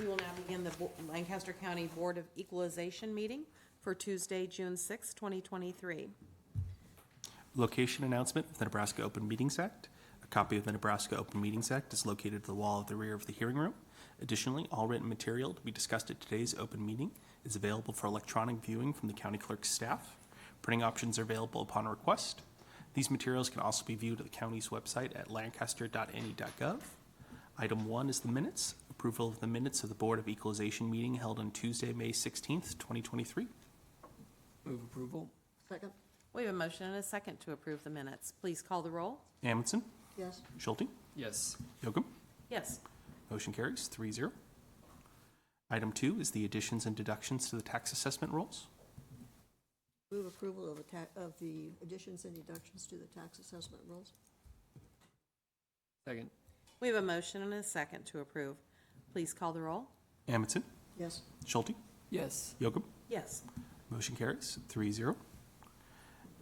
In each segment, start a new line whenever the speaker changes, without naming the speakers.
will now begin the Bo- Lancaster County Board of Equalization meeting for Tuesday, June 6, 2023.
Location announcement of the Nebraska Open Meetings Act. A copy of the Nebraska Open Meetings Act is located at the wall at the rear of the hearing room. Additionally, all written material to be discussed at today's open meeting is available for electronic viewing from the county clerk's staff. Printing options are available upon request. These materials can also be viewed at the county's website at lancaster.ne.gov. E Item one is the minutes, approval of the minutes of the Board of Equalization meeting held on Tuesday, May 16th, 2023.
Move approval?
Second?
We have a motion and a second to approve the minutes. Please call the roll.
Amundson,
Yes.
Schulte,
Yes.
Yocum,
Yes.
Motion carries three zero. Item two is the additions and deductions to the tax assessment rolls.
Move approval of the ta, of the additions and deductions to the tax assessment rules?
Second?
We have a motion and a second to approve. Please call the roll.
Amundson,
Yes.
Schulte,
Yes.
Yocum.
Yes.
Motion carries three zero.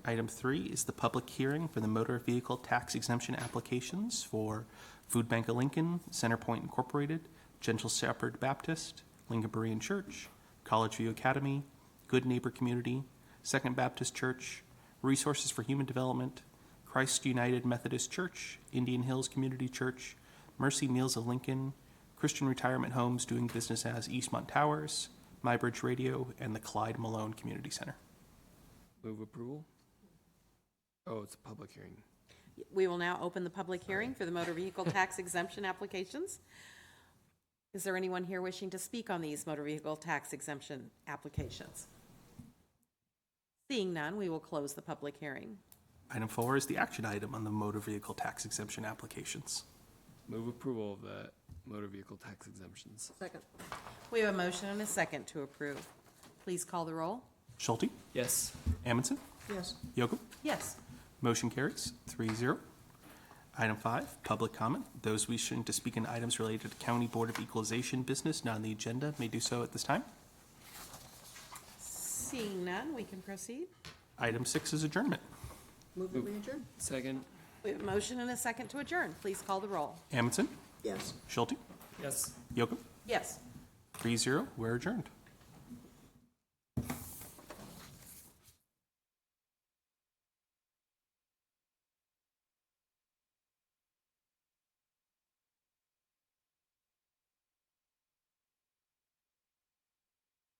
Item three is the public hearing for the motor vehicle tax exemption applications for Food Bank of Lincoln, Centerpoint Incorporated, Gentle Shepherd Baptist, Lincoln Berean Church, College View Academy, Good Neighbor Community, Second Baptist Church, Resources for Human Development, Christ United Methodist Church, Indian Hills Community Church, Mercy Meals of Lincoln, Christian Retirement Homes doing business as Eastmont Towers, MyBridge Radio, and the Clyde Malone Community Center.
Move approval? Oh, it's a public hearing.
We will now open the public hearing for the motor vehicle tax exemption applications. Is there anyone here wishing to speak on these motor vehicle tax exemption applications? Seeing none, we will close the public hearing.
Item four is the action item on the motor vehicle tax exemption applications.
Move approval of the motor vehicle tax exemptions.
Second?
We have a motion and a second to approve. Please call the roll.
Schulte,
Yes.
Amundson,
Yes.
Yocum,
Yes.
motion carries three zero. Item five, public comment. Those wishing to speak on items related to County Board of Equalization business not on the agenda may do so at this time.
Seeing none, we can proceed.
Item six is adjournment.
Move the adjourn?
Second?
We have a motion and a second to adjourn. Please call the roll.
Amundson,
Yes.
Schulte,
Yes.
Yocum,
Yes.
three zero. We're adjourned.